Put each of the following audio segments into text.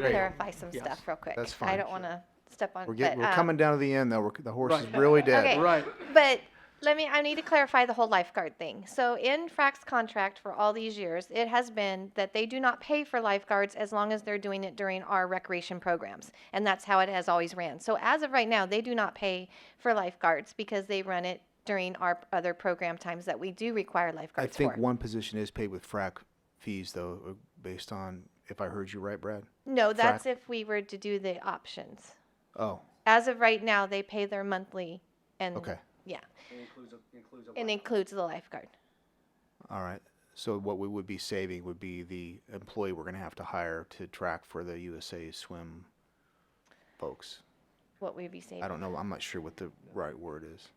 to Right. clarify some Yes. stuff real quick. That's I fine. don't want to step on. We're getting, but, we're um, coming down to the end though. We're, the horse is Right. really dead. Okay. Right. But let me, I need to clarify the whole lifeguard thing. So in Frac's contract for all these years, it has been that they do not pay for lifeguards as long as they're doing it during our recreation programs. And that's how it has always ran. So as of right now, they do not pay for lifeguards because they run it during our other program times that we do require I lifeguards think for. one position is paid with frac fees though, uh, based on, if I heard you right, Brad? No, that's if we were to do the options. Oh, As of right now, they pay their monthly and, okay. yeah, includes a, includes a and includes the lifeguard. All right. So what we would be saving would be the employee we're gonna have to hire to track for the USA swim folks. What we'd be saving. I don't know. I'm not sure what the right word is.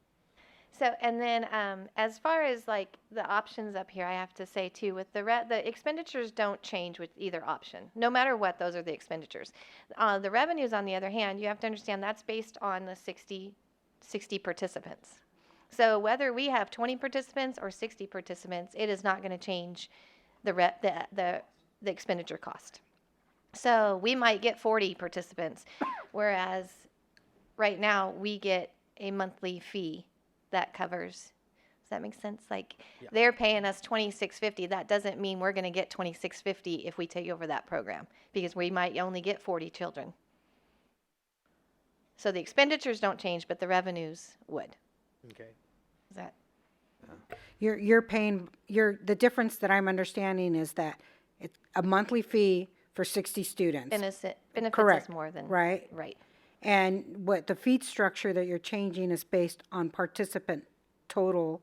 So, and then um, as far as like the options up here, I have to say too, with the re- the expenditures don't change with either option. No matter what, those are the expenditures. Uh, the revenues, on the other hand, you have to understand that's based on the 60, 60 participants. So whether we have 20 participants or 60 participants, it is not going to change the, re- the the the expenditure cost. So we might get 40 participants, whereas right now we get a monthly fee that covers. Does that make sense? Like they're paying us twenty six fifty. That doesn't mean we're gonna get twenty six fifty if we take over that program because we might only get forty children. So the expenditures don't change, but the revenues would. Okay. Is that You're, you're paying, you're, the difference that I'm understanding is that it's a monthly fee for sixty students, benefit benefits us Correct. more than right? Right. And what the fee structure that you're changing is based on participant total,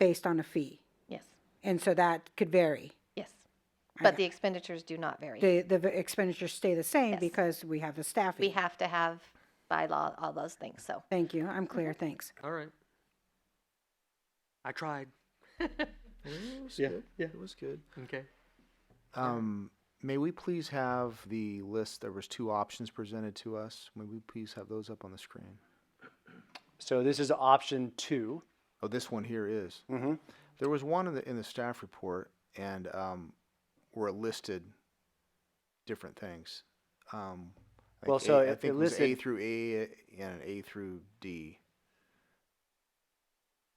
based on a fee. Yes. And so that could vary. Yes. But the expenditures do not vary. The, the expenditures stay the same Yes. because we have the we staffing. have to have by law all those things. So Thank you, Mhm. I'm clear, thanks. All right. I tried. It was Yeah, good. yeah. It was good. Okay. Um, may we please have the list? There was two options presented to us. May we please have those up on the screen? So this is option two. Oh, this one here is. Mm-hmm. There was one in the in the staff report, and um, where it listed different things. Um, like Well, A- so I it- think it was A listed- through A and an A through D.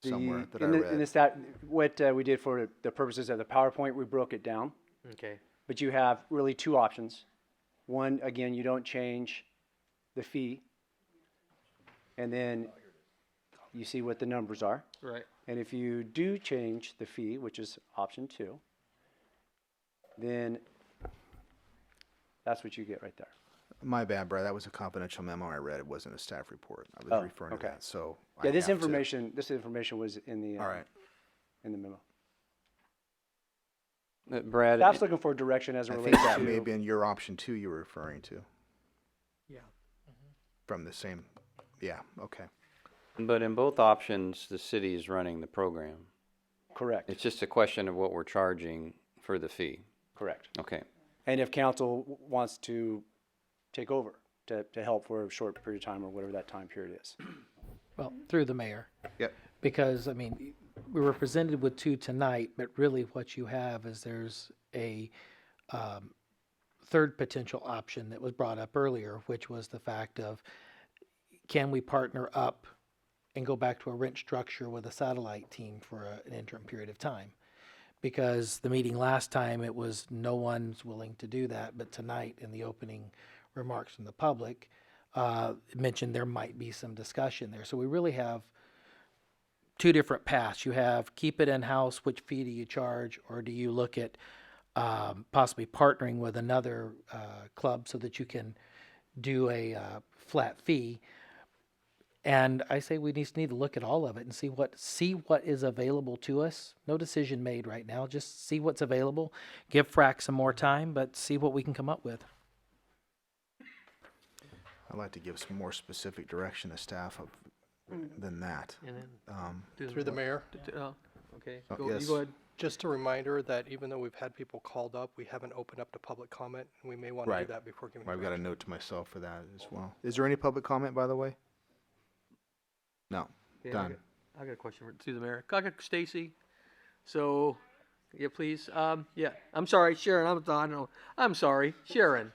Somewhere that I in the, read. In the stat, what uh, we did for the purposes of the PowerPoint, we broke it down. Okay. But you have really two options. One, again, you don't change the fee. And then you see what the numbers are. Right. And if you do change the fee, which is option two, then that's what you get right there. My bad, Brad. That was a confidential memo I read. It wasn't a staff report. I was Oh, referring okay. to that. So I Yeah, this have to- information, this information was in the, uh, All right. in the memo. Uh, Brad, Staff's looking for direction as it I think relates that may have to, been your option two you were referring to Yeah. from the same. Yeah. Okay. but in both options, the city is running the program. correct, It's just a question of what we're charging for the fee. correct. Okay. And if council w- wants to take over, to, to help for a short period of time or whatever that time period is. Well, through the mayor, Yep. because, I mean, we were presented with two tonight, but really what you have is there's a um, third potential option that was brought up earlier, which was the fact of, can we partner up and go back to a rent structure with a satellite team for a- an interim period of time? Because the meeting last time, it was no one's willing to do that, but tonight in the opening remarks from the public, uh, mentioned there might be some discussion there. So we really have two different paths. You have keep it in house, which fee do you charge, or do you look at um, possibly partnering with another uh, club so that you can do a uh, flat fee? And I say we just need to look at all of it and see what see what is available to us. No decision made right now. Just see what's available. Give Frac some more time, but see what we can come up with. I'd like to give some more specific direction to staff of, than that. And then Um, Through the mayor, d- d- oh, okay. Oh, Go, you yes. go ahead. just a reminder that even though we've had people called up, we haven't opened up to public comment, and we may want to Right. do that before giving. I've got a direction. note to myself for that as well. Is there any public comment, by the way? No. Okay, I Done. got- I got a question for- through the mayor. I got Stacy. So, yeah, please. Um, yeah, I'm sorry, Sharon. I'm, I don't know. I'm sorry, Sharon.